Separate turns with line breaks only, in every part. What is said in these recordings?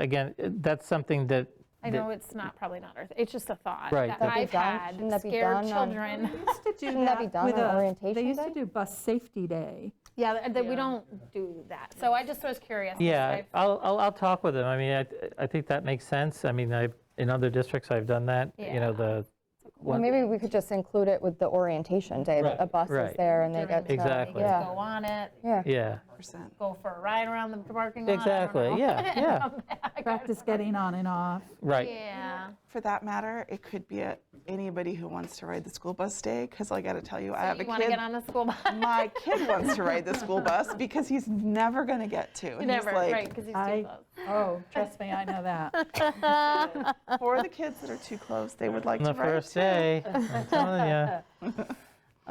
again, that's something that.
I know it's not, probably not Earth, it's just a thought
Right,
that
that-
I've
That'd be done-
had,
shouldn't that be
scared
done on-
children.
used to do
Shouldn't that be done
with
on
a-
orientation
They used to
day?
do bus safety day.
Yeah, th- that we don't do that. So I just was curious. 'cause
Yeah,
I've-
I'll, I'll, I'll talk with them. I mean, I, I think that makes sense. I mean, I, in other districts, I've done that, you know,
Yeah.
the.
Well,
one-
maybe we could just include it with the orientation day, that a
Right,
bus
right.
is there and they
during
get
the day,
to.
they
Exactly.
get to
Yeah.
Go on it,
Yeah.
Yeah,
percent.
go for a ride around the parking lot. I don't
exactly.
know.
Yeah, yeah,
Practice getting on and off.
right.
Yeah.
For that matter, it could be at anybody who wants to ride the school bus day, because I got to tell you, I
So
have a
You want to
kid.
get on the school bus?
My kid wants to ride the school bus because he's never going to get to. And
Never,
he's like,
right, because he's too
I,
close.
oh, trust me, I know that.
for the kids that are too close, they would like
On the
to ride.
first day, I'm telling you.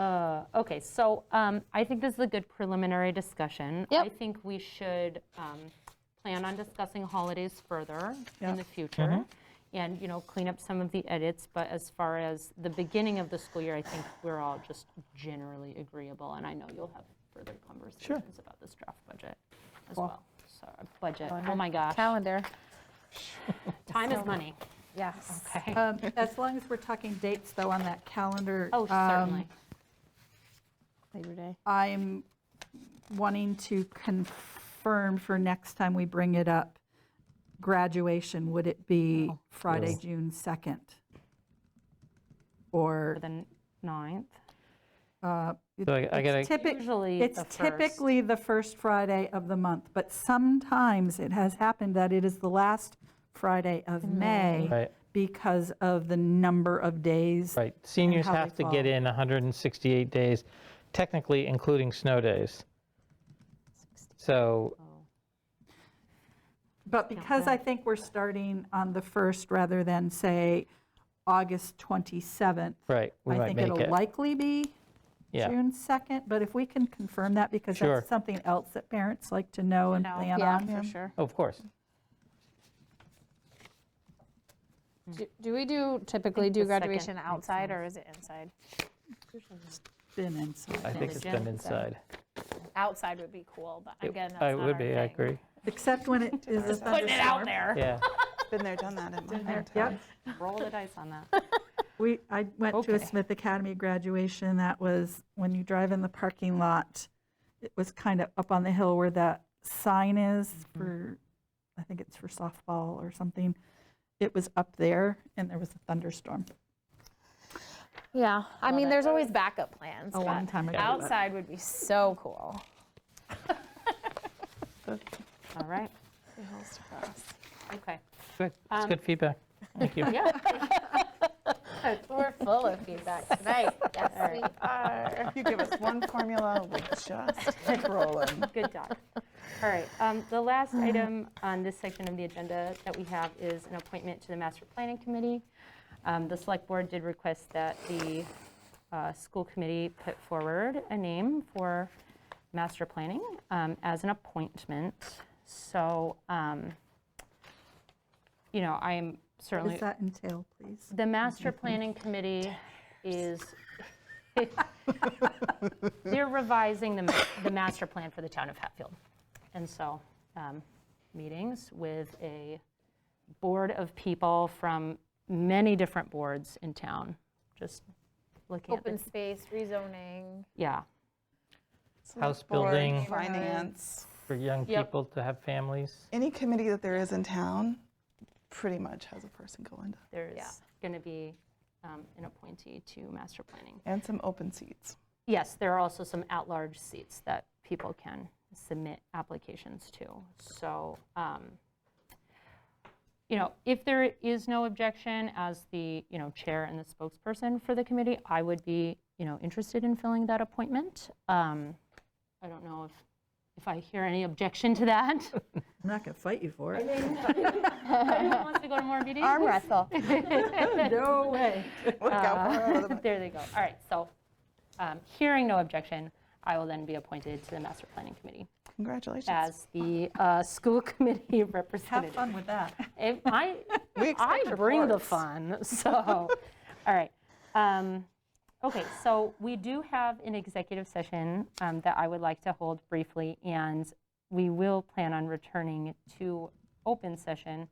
Uh, Okay, so um, I think this is a good preliminary discussion. I think we should um, plan on discussing holidays further in the future and, you know, clean up some of the edits. But as far as the beginning of the school year, I think we're all just generally agreeable. And I know you'll have further conversations about this draft budget as well. So, budget, oh my gosh,
Calendar.
time is money.
Yes.
Okay.
Um, As long as we're talking dates, though, on that calendar.
Oh,
um,
certainly.
Labor Day.
I'm wanting to confirm for next time we bring it up, graduation, would it be Friday, June 2nd? Or uh,
For the 9th.
So I I gotta,
typically,
Usually
it's
the first.
typically the first Friday of the month, but sometimes it has happened that it is the last Friday of May
Right.
because of the number of days.
right, seniors
how they
have to get
fall.
in 168 days, technically including snow days. So,
But because I think we're starting on the first rather than, say, August 27th,
right, we
I
might
think
make
it'll
it.
likely be
Yeah,
June 2nd, but if we can confirm that, because
Sure.
that's something else that parents like to know and plan
Yeah,
on.
for sure.
of course.
Do- Do we do, typically do
the second
graduation
makes
outside or is it inside?
Been inside.
I think it's been inside.
Outside would be cool, but again, that's not
I
our
would be, I
thing.
agree.
Except when it is a
Putting it out
thunderstorm.
there.
Yeah,
Been there, done that in my hometown.
Yep.
Roll the dice on that.
We, I went to a
Okay.
Smith Academy graduation, that was, when you drive in the parking lot, it was kind of up on the hill where that sign is for, I think it's for softball or something. It was up there, and there was a thunderstorm
Yeah, I mean, there's always backup plans.
a long
but
time ago. but-
Outside would be so cool.
All right,
It holds to fast.
okay.
good, that's
Um,
good feedback. Thank you.
Yeah,
Oh, We're full of feedback tonight. Yes, we are.
If you give us one formula, we'll just keep rolling.
good job. All right, um, the last item on this section of the agenda that we have is an appointment to the Master Planning Committee. Um, The Select Board did request that the uh, school committee put forward a name for master planning um, as an appointment. So, um, you know, I'm
What
certainly.
does that entail, please?
The master planning committee is, they're revising the, ma- the master plan for the town of Hatfield. And so, um, meetings with a board of people from many different boards in town, just looking at,
Open
the-
space, rezoning.
yeah.
House
Board,
building.
Finance.
For young
Yep.
people to have families.
Any committee that there is in town pretty much has a person going to,
There's going to be um, an appointee to master planning.
and some open seats.
Yes, there are also some at-large seats that people can submit applications to. So, um, you know, if there is no objection as the, you know, chair and the spokesperson for the committee, I would be, you know, interested in filling that appointment. Um, I don't know if, if I hear any objection to that.
I'm not going to fight you for it.
Anyone wants to go to more meetings?
Arm wrestle.
No way.
Look out for all the
There they go. All right, so um, hearing no objection, I will then be appointed to the master planning committee.
Congratulations.
as the uh, school committee
Have
representative.
fun with that.
If I,
We
I
expect
bring the
reports.
fun, so, all right. Um, Okay, so we do have an executive session um, that I would like to hold briefly, and we will plan on returning to open session